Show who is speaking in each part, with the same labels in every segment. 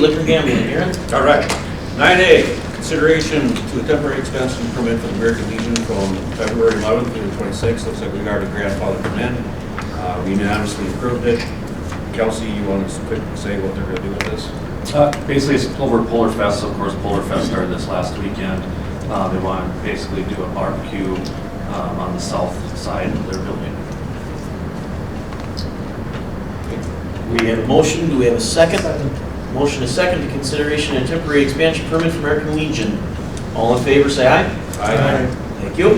Speaker 1: Liquor gambling, Aaron?
Speaker 2: All right. Nine A, consideration to a temporary extension permit for the American Legion from February eleventh through the twenty-sixth. Looks like we already grandfathered them in. Uh, We unanimously approved it. Kelsey, you want to quick say what they're going to do with this?
Speaker 3: Uh, Basically, it's over Polar Fest, of course, Polar Fest started this last weekend. Uh, They want to basically do a barbecue um, on the south side of their building.
Speaker 1: We have a motion, do we have a second? Motion is second to consideration and temporary expansion permit for American Legion. All in favor, say aye. Thank you.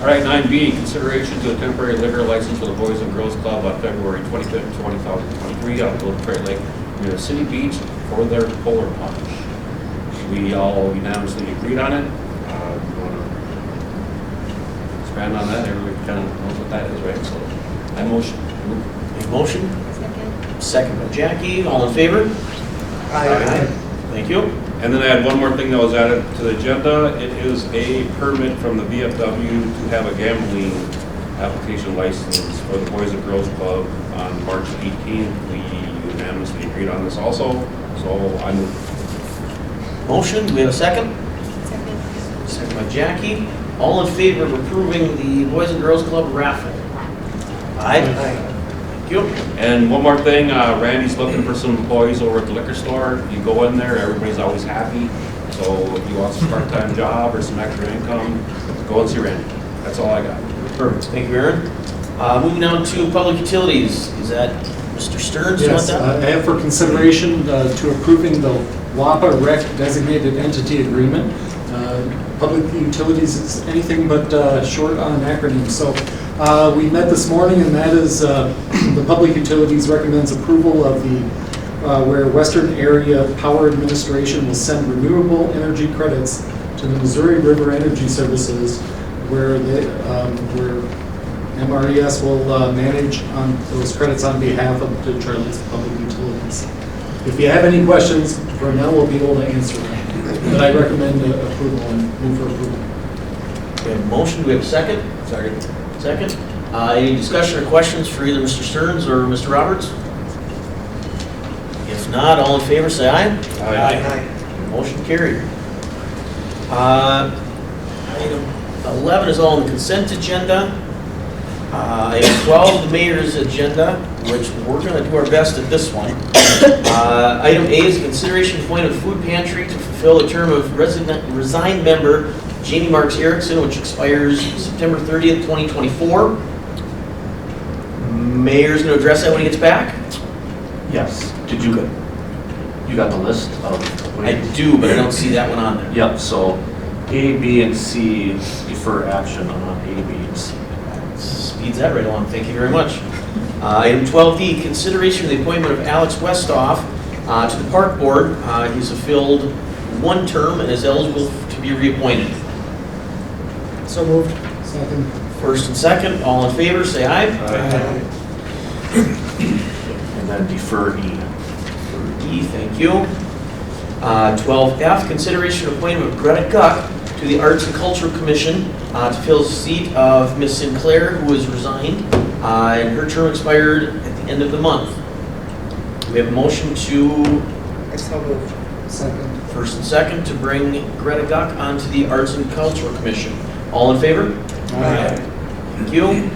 Speaker 2: All right, nine B, consideration to a temporary liquor license for the Boys and Girls Club on February twenty-fifth, twenty thousand twenty-three, out of Little Prairie Lake, near City Beach, for their polar punch. We all unanimously agreed on it. Uh, you wanna Expand on that, everybody kind of knows what that is, right? So, I motion.
Speaker 1: A motion, second by Jackie, all in favor? Thank you.
Speaker 2: And then I had one more thing that was added to the agenda. It is a permit from the VFW to have a gambling application license for the Boys and Girls Club on March 18th. We unanimously agreed on this also, so I'm,
Speaker 1: Motion, do we have a second? Second by Jackie, all in favor of approving the Boys and Girls Club raffle? Aye. Thank you.
Speaker 2: and one more thing, uh, Randy's looking for some employees over at the liquor store. You go in there, everybody's always happy. So if you want some part-time job or some extra income, go and see Randy. That's all I got.
Speaker 1: Perfect, thank you, Aaron. Uh, Moving on to public utilities, is that Mr. Stearns? you want
Speaker 4: Yes,
Speaker 1: that?
Speaker 4: uh, I have for consideration uh, to approving the WAPA REC designated entity agreement. Uh, Public utilities is anything but uh, short on acronyms. So uh, we met this morning, and that is, uh, the public utilities recommends approval of the, uh, where Western Area Power Administration will send renewable energy credits to the Missouri River Energy Services, where the, um, where MRES will uh, manage on those credits on behalf of the Detroit's public utilities. If you have any questions, Vernell will be able to answer them. But I recommend uh, approval and move for approval.
Speaker 1: We have a motion, do we have a second? Second. Second. Uh, Any discussion or questions for either Mr. Stearns or Mr. Roberts? If not, all in favor, say aye.
Speaker 2: Aye.
Speaker 1: Motion carried. Uh, Item 11 is all on the consent agenda. Uh, Item 12, the mayor's agenda, which we're going to do our best at this one. Uh, Item A is consideration point of food pantry to fulfill the term of resident- resigned member Jeannie Marks Erickson, which expires September 30th, 2024. Mayor's going to address that when he gets back?
Speaker 3: Yes. Did you, you got the list of?
Speaker 1: I do, but I don't see that one on there.
Speaker 3: Yep, so A, B, and C defer action on A, B, and C.
Speaker 1: Speeds that right along, thank you very much. Uh, Item 12D, consideration of the appointment of Alex Westoff uh, to the Park Board. Uh, He's fulfilled one term and is eligible to be reappointed.
Speaker 4: So moved. Second.
Speaker 1: First and second, all in favor, say aye.
Speaker 4: Aye.
Speaker 3: And then defer E.
Speaker 1: E, thank you. Uh, 12F, consideration of appointment of Greta Guck to the Arts and Culture Commission uh, to fill the seat of Miss Sinclair, who has resigned, uh, and her term expired at the end of the month. Do we have a motion to
Speaker 5: I so moved.
Speaker 4: Second.
Speaker 1: First and second to bring Greta Guck onto the Arts and Cultural Commission. All in favor? Thank you.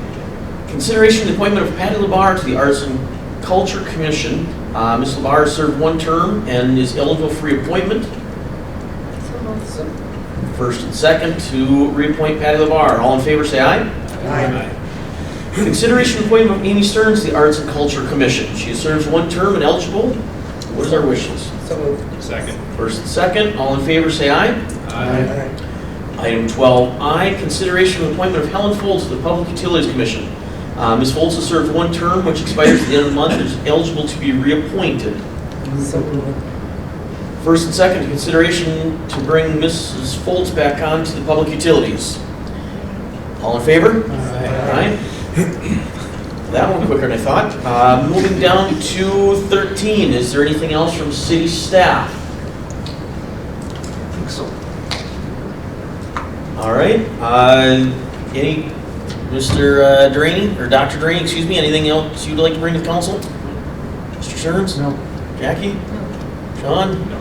Speaker 1: Consideration of the appointment of Patty LaBarre to the Arts and Culture Commission. Uh, Ms. LaBarre served one term and is eligible for reappointment.
Speaker 5: So moved.
Speaker 1: First and second to reappoint Patty LaBarre. All in favor, say aye. Consideration of appointment of Amy Stearns to the Arts and Culture Commission. She serves one term and eligible. What is our wishes?
Speaker 5: So moved.
Speaker 2: Second.
Speaker 1: First and second, all in favor, say aye.
Speaker 2: Aye.
Speaker 1: Item 12I, consideration of appointment of Helen Foltz to the Public Utilities Commission. Uh, Ms. Foltz has served one term, which expires at the end of the month, and is eligible to be reappointed.
Speaker 5: So moved.
Speaker 1: First and second, consideration to bring Mrs. Foltz back on to the Public Utilities. All in favor? Aye. That one quicker than I thought. Uh, Moving down to 13, is there anything else from city staff?
Speaker 3: I think so.
Speaker 1: All right, uh, any, Mr. Drainey, or Dr. Drainey, excuse me, anything else you'd like to bring to council? Mr. Stearns?
Speaker 4: No.
Speaker 1: Jackie? John?